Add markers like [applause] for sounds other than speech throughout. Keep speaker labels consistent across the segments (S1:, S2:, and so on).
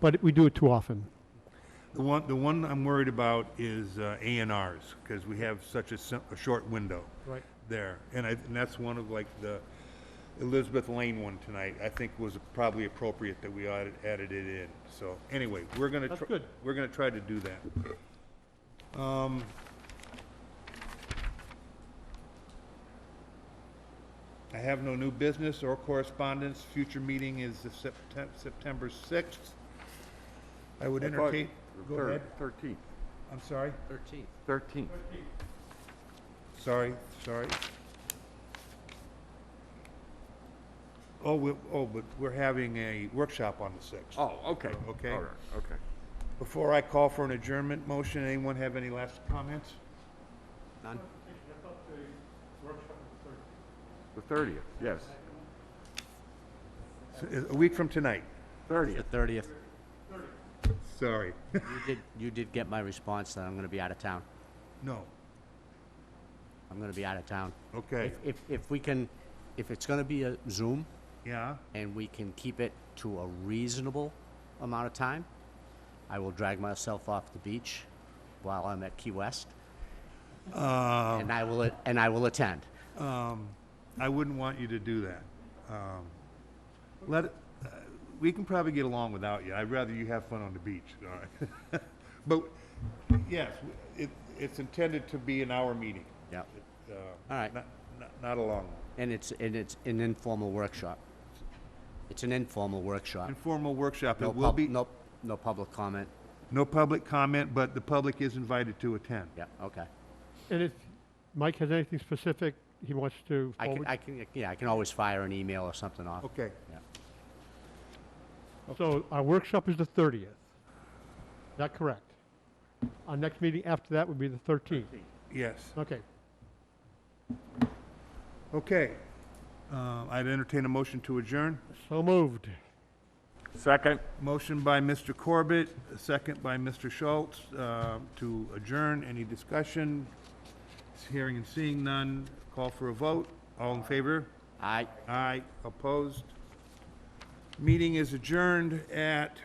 S1: but we do it too often.
S2: The one, the one I'm worried about is uh, A and Rs, because we have such a, sim- a short window.
S1: Right.
S2: There, and I, and that's one of like the Elizabeth Lane one tonight, I think was probably appropriate that we added, added it in. So, anyway, we're gonna.
S1: That's
S2: tr-
S1: good.
S2: We're gonna try to do that. Um. I have no new business or correspondence, future meeting is the Septem- September sixth. I would entertain. Go ahead.
S3: Thirteenth,
S2: I'm sorry,
S4: Thirteenth.
S3: thirteenth.
S2: sorry, sorry. Oh, we, oh, but we're having a workshop on the sixth.
S3: Oh, okay.
S2: Okay.
S3: All right, okay.
S2: Before I call for an adjournment motion, anyone have any last comments?
S4: None.
S3: The thirtieth, yes.
S2: So, is- A week from tonight,
S4: The
S3: Thirtieth.
S4: thirtieth.
S2: sorry.
S4: You did, you did get my response that I'm gonna be out of town.
S2: No,
S4: I'm gonna be out of town.
S2: okay,
S4: If, if, if we can, if it's gonna be a Zoom
S2: yeah,
S4: and we can keep it to a reasonable amount of time, I will drag myself off the beach while I'm at Key West.
S2: Um.
S4: And I will, a- and I will attend.
S2: I wouldn't want you to do that. Um, Let, it- uh, we can probably get along without you, I'd rather you have fun on the beach, all right? [laughs] But, yes, it, it's intended to be an hour meeting.
S4: Yep.
S2: Uh,
S4: All right.
S2: Not, not- not a long, one.
S4: And it's, and it's an informal workshop. It's an informal workshop.
S2: informal workshop,
S4: No
S2: it will
S4: pub,
S2: be,
S4: no, no public comment.
S2: no public comment, but the public is invited to attend.
S4: Yeah, okay.
S1: And if Mike has anything specific he wants to
S4: I can,
S1: forward,
S4: I can, yeah, I can always fire an email or something off.
S2: Okay,
S4: Yeah.
S1: so our workshop is the 30th. Is that correct? Our next meeting after that would be the 13th.
S2: yes,
S1: Okay.
S2: okay. Uh, I'd entertain a motion to adjourn.
S1: So moved.
S3: Second.
S2: Motion by Mr. Corbett, a second by Mr. Schultz, uh, to adjourn. Any discussion? Hearing and seeing none. Call for a vote. All in favor?
S4: I,
S2: Aye. Opposed? Meeting is adjourned at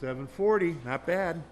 S2: 7:40. Not bad.